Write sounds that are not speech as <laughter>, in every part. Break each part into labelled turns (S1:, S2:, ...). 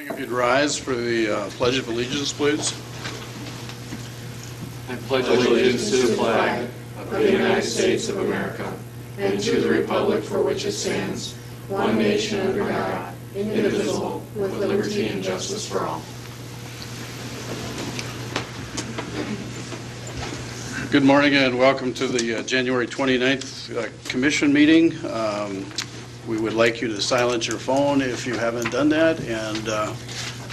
S1: If you'd rise for the uh, Pledge of Allegiance, please.
S2: I pledge allegiance to the flag of the United States of America and to the republic for which it stands, one nation under God, indivisible, with liberty and justice for all.
S1: Good morning and welcome to the uh, January 29th uh, Commission meeting. Um, We would like you to silence your phone if you haven't done that, and uh,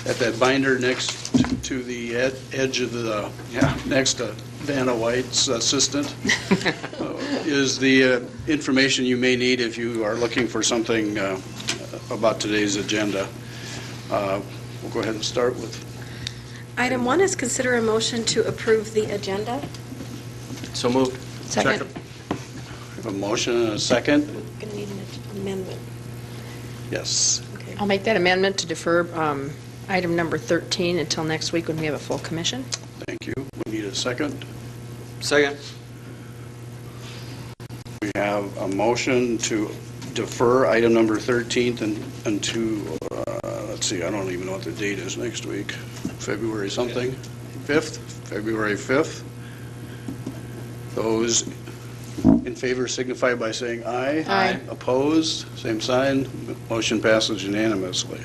S1: at that binder next to the ed- edge of the, yeah, next to Vanna White's assistant uh, is the uh, information you may need if you are looking for something uh, about today's agenda. Uh, We'll go ahead and start with
S3: Item one is consider a motion to approve the agenda.
S2: So moved.
S4: Second.
S1: a motion and a second.
S3: Going to need an amendment.
S1: Yes.
S3: Okay.
S4: I'll make that amendment to defer um, item number 13 until next week when we have a full commission.
S1: Thank you. We need a second.
S2: Second.
S1: We have a motion to defer item number 13th and, and to, uh, let's see, I don't even know what the date is next week, February something, 5th, February 5th. Those in favor signify by saying aye.
S4: Aye.
S1: Opposed, same sign. Motion passes unanimously.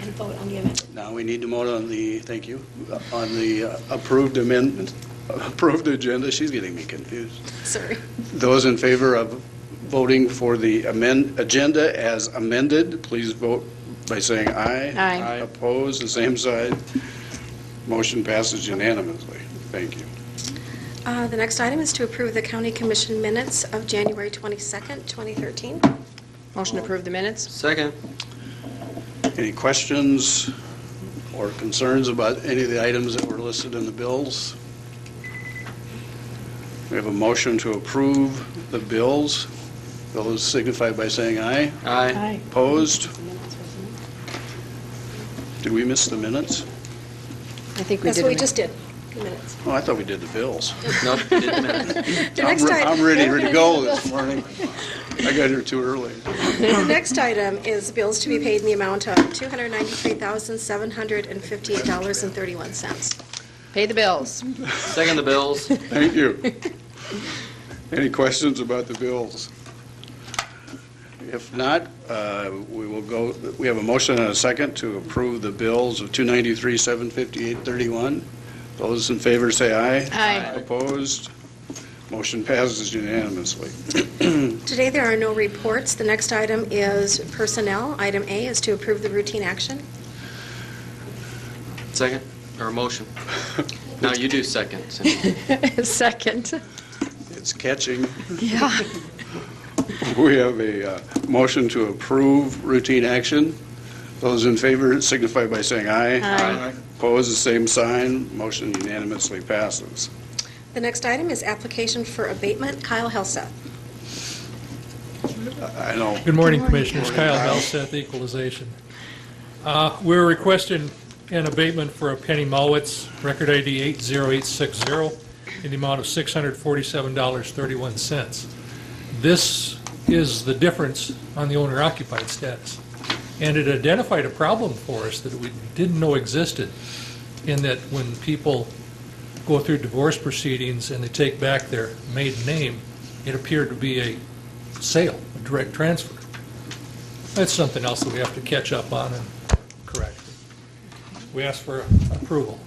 S3: And vote on the amendment.
S1: Now we need to vote on the, thank you, on the uh, approved amendment, approved agenda. She's getting me confused.
S3: Sorry.
S1: Those in favor of voting for the amend, agenda as amended, please vote by saying aye.
S4: Aye. Aye.
S1: Opposed, the same side. Motion passes unanimously. Thank you.
S3: Uh, The next item is to approve the county commission minutes of January 22nd, 2013.
S4: Motion to approve the minutes?
S2: Second.
S1: Any questions or concerns about any of the items that were listed in the bills? We have a motion to approve the bills. Those signify by saying aye.
S2: Aye.
S1: Opposed? Did we miss the minutes?
S4: I think we did.
S3: That's what we just did, the minutes.
S1: Oh, I thought we did the bills.
S2: No, didn't matter.
S3: The
S1: I'm
S3: next
S1: re-
S3: item-
S1: I'm ready to go this morning. I got here too early.
S3: The next item is bills to be paid in the amount of $293,758.31.
S4: Pay the bills.
S2: Second the bills.
S1: Thank you. Any questions about the bills? If not, uh, we will go, we have a motion and a second to approve the bills of 293, 758, 31. Those in favor say aye.
S4: Aye.
S1: Opposed? Motion passes unanimously.
S3: Today, there are no reports. The next item is personnel. Item A is to approve the routine action.
S2: Second, or motion. No, you do second. Cindy.
S4: <laughs> Second.
S1: It's catching.
S4: <laughs> Yeah.
S1: We have a uh, motion to approve routine action. Those in favor signify by saying aye.
S2: Aye.
S1: Opposed, the same sign. Motion unanimously passes.
S3: The next item is application for abatement. Kyle Helseth.
S1: I I know,
S5: Good morning, Commissioners. Kyle Belseth, Equalization. Uh, We're requesting an abatement for a Penny Mowitz, record ID 80860, in the amount of $647.31. This is the difference on the owner-occupied status. And it identified a problem for us that we didn't know existed, in that when people go through divorce proceedings and they take back their maiden name, it appeared to be a sale, a direct transfer. That's something else that we have to catch up on and correct. We ask for approval.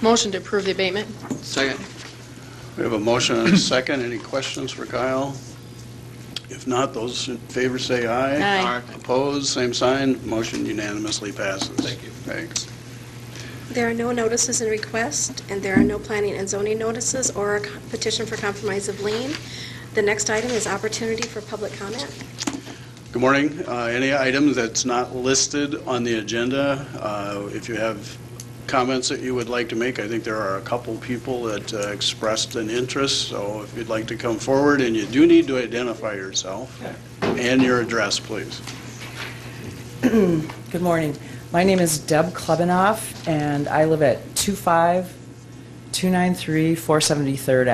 S4: Motion to approve the abatement?
S2: Second.
S1: we have a motion
S2: <coughs>
S1: and a second. Any questions for Kyle? If not, those in favor say aye.
S4: Aye.
S1: Opposed, same sign. Motion unanimously passes.
S5: Thank you.
S1: Thanks.
S3: There are no notices and requests, and there are no planning and zoning notices or a petition for compromise of lien. The next item is opportunity for public comment.
S1: Good morning. Uh, Any item that's not listed on the agenda, uh, if you have comments that you would like to make, I think there are a couple people that uh, expressed an interest, so if you'd like to come forward, and you do need to identify yourself and your address, please.
S6: Good morning. My name is Deb Klebanoff, and I live at 25293 473rd